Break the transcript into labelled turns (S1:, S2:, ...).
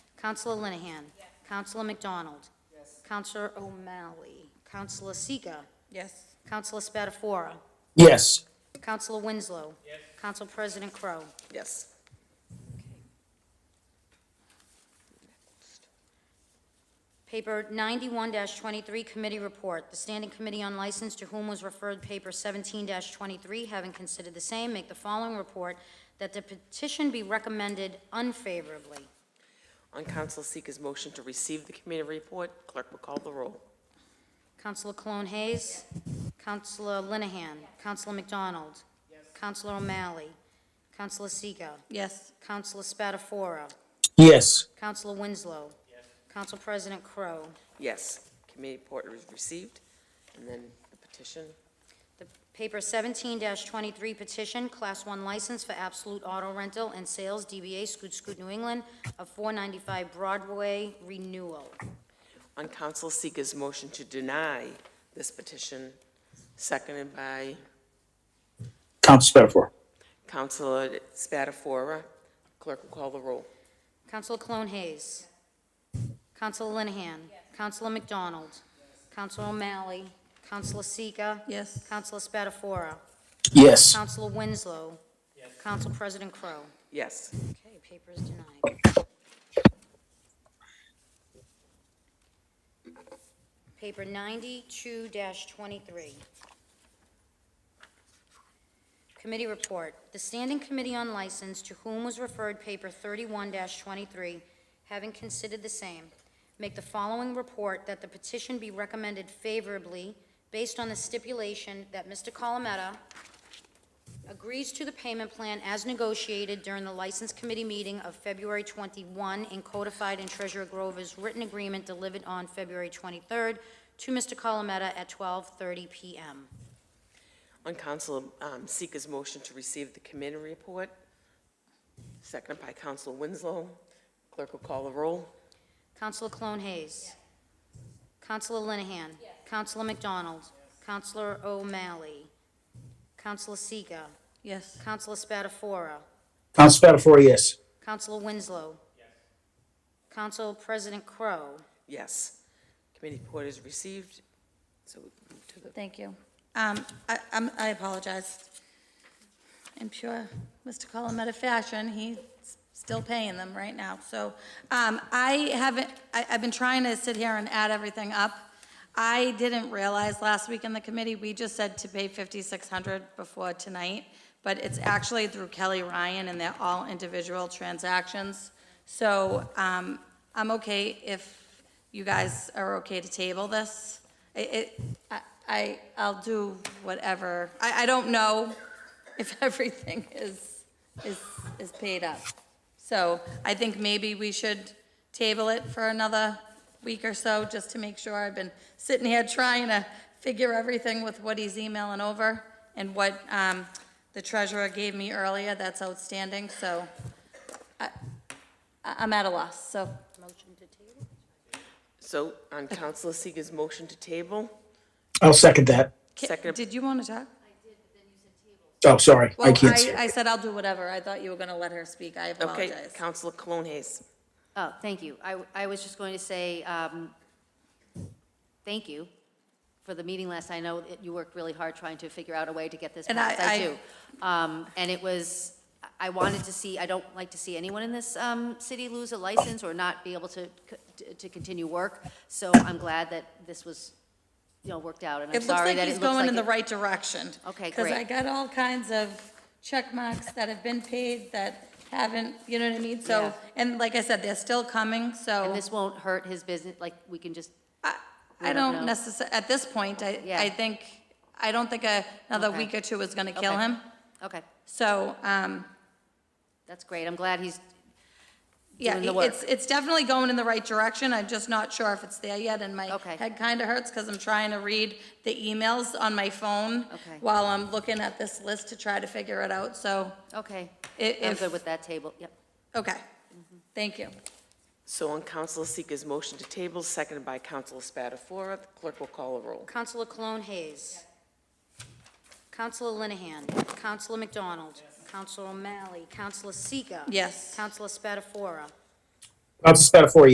S1: Counselor Linehan? Counselor McDonald? Counselor O'Malley? Counselor Seega?
S2: Yes.
S1: Counselor Spatafora?
S3: yes,
S1: Counselor Winslow? Council President Crow.
S2: Yes.
S1: Paper 91-23, Committee Report. The Standing Committee on License, to whom was referred paper 17-23, having considered the same, make the following report, that the petition be recommended unfavorably.
S4: On Council Seeker's motion to receive the committee report, clerk will call the roll.
S1: Counselor Cologne Hayes. Counselor Linehan. Counselor McDonald. Counselor O'Malley. Counselor Seega.
S2: Yes.
S1: Counselor Spatafora.
S3: yes,
S1: Counselor Winslow. Council President Crow.
S4: Yes, committee report is received, and then the petition.
S1: The paper 17-23 petition, Class 1 license for Absolute Auto Rental and Sales, DBA Scoot Scoot New England, of 495 Broadway renewal.
S4: On Council Seeker's motion to deny this petition, seconded by
S3: Counsel Spatafora,
S4: Councilor Spatafora, clerk will call the roll.
S1: Counselor Cologne Hayes. Counselor Linehan. Counselor McDonald. Counselor O'Malley. Counselor Seega.
S2: Yes.
S1: Counselor Spatafora.
S3: yes,
S1: Counselor Winslow. Council President Crow.
S4: Yes.
S1: Okay, paper is denied. Paper 92-23. Committee report. The Standing Committee on License, to whom was referred paper 31-23, having considered the same, make the following report that the petition be recommended favorably based on the stipulation that Mr. Colometta agrees to the payment plan as negotiated during the License Committee meeting of February 21 and codified in Treasurer Grover's written agreement delivered on February 23rd to Mr. Colometta at 12:30 PM.
S4: On Council um, Seeker's motion to receive the committee report, seconded by Council Winslow, clerk will call the roll.
S1: Counselor Cologne Hayes. Counselor Linehan. Counselor McDonald. Counselor O'Malley. Counselor Seega.
S2: Yes.
S1: Counselor Spatafora.
S3: Counsel Spatafora, yes,
S1: Counselor Winslow. Counsel President Crow.
S4: Yes. Committee report is received, so we move to the
S2: Thank you. Um, I, I'm- I apologize. I'm pure Mr. Colometta fashion, he's still paying them right now. So, um, I haven't, I, I've been trying to sit here and add everything up. I didn't realize last week in the committee, we just said to pay fifty-six hundred before tonight, but it's actually through Kelly Ryan and they're all individual transactions. So, um, I'm okay if you guys are okay to table this. It, it, I- I, I'll do whatever. I, I don't know if everything is, is, is paid up. So I think maybe we should table it for another week or so, just to make sure. I've been sitting here trying to figure everything with what he's emailing over and what, um, the treasurer gave me earlier, that's outstanding, so I, I- I'm at a loss, so,
S1: Motion to table?
S4: So on Councilor Seeger's motion to table,
S3: I'll second that.
S4: Second.
S2: did you want to talk?
S3: Oh, sorry, I
S2: Well,
S3: can't see.
S2: I, I said I'll do whatever. I thought you were gonna let her speak. I
S4: okay,
S2: apologize.
S4: Councilor Cologne Hayes.
S5: Oh, thank you. I, I was just going to say, um, thank you for the meeting last. night. I know that you worked really hard trying to figure out a way to get this
S2: And
S5: passed.
S2: I- I-
S5: do. Um, and it was, I wanted to see, I don't like to see anyone in this, um, city lose a license or not be able to, c- to continue work. So I'm glad that this was, you know, worked out, and I'm
S2: It looks
S5: sorry
S2: like
S5: that
S2: he's
S5: it looks
S2: going
S5: like
S2: in the
S5: it
S2: right direction.
S5: Okay,
S2: Because
S5: great.
S2: I got all kinds of check marks that have been paid that haven't, you know what I mean? So,
S5: Yeah.
S2: and like I said, they're still coming,
S5: And
S2: so
S5: this won't hurt his business, like, we can just,
S2: I,
S5: we
S2: I
S5: don't
S2: don't
S5: know.
S2: necessarily at this point, I,
S5: Yeah.
S2: I think, I don't think a- another
S5: Okay.
S2: week or two is going to kill
S5: Okay.
S2: him.
S5: okay,
S2: So, um,
S5: that's great. I'm glad he's
S2: yeah,
S5: doing the work.
S2: it's, it's definitely going in the right direction. I'm just not sure if it's there yet, and my
S5: Okay.
S2: head kind of hurts because I'm trying to read the emails on my phone
S5: Okay.
S2: while I'm looking at this list to try to figure it out, so
S5: Okay,
S2: i-
S5: I'm
S2: if.
S5: good with that table, yep.
S2: Okay, thank you.
S4: So on Councilor Seeger's motion to table, seconded by Councilor Spatafora, the clerk will call the roll.
S1: Counselor Cologne Hayes. Counselor Linehan. Counselor McDonald. Counselor O'Malley. Counselor Seega.
S2: Yes.
S1: Counselor Spatafora.
S3: Council Spatafora,